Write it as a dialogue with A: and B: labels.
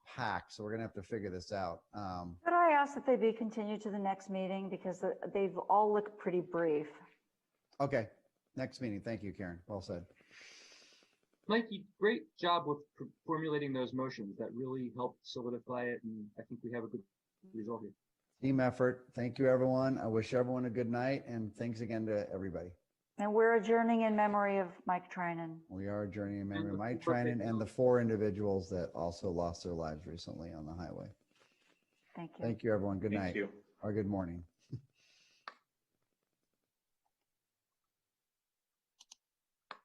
A: packed, so we're gonna have to figure this out. Um,
B: Could I ask that they be continued to the next meeting because they've all looked pretty brief?
A: okay, next meeting. Thank you, Karen. Well said.
C: Mikey, great job with pr- formulating those motions. That really helped solidify it, and I think we have a good result here.
A: Team effort. Thank you, everyone. I wish everyone a good night and thanks again to everybody.
B: And we're adjourning in memory of Mike Trinan.
A: We are journeying in memory of
C: the
A: Mike
C: people that
A: Trinan and the four individuals that also lost their lives recently on the highway.
B: Thank you.
A: Thank you, everyone. Good
D: Thank
A: night
D: you.
A: or good morning.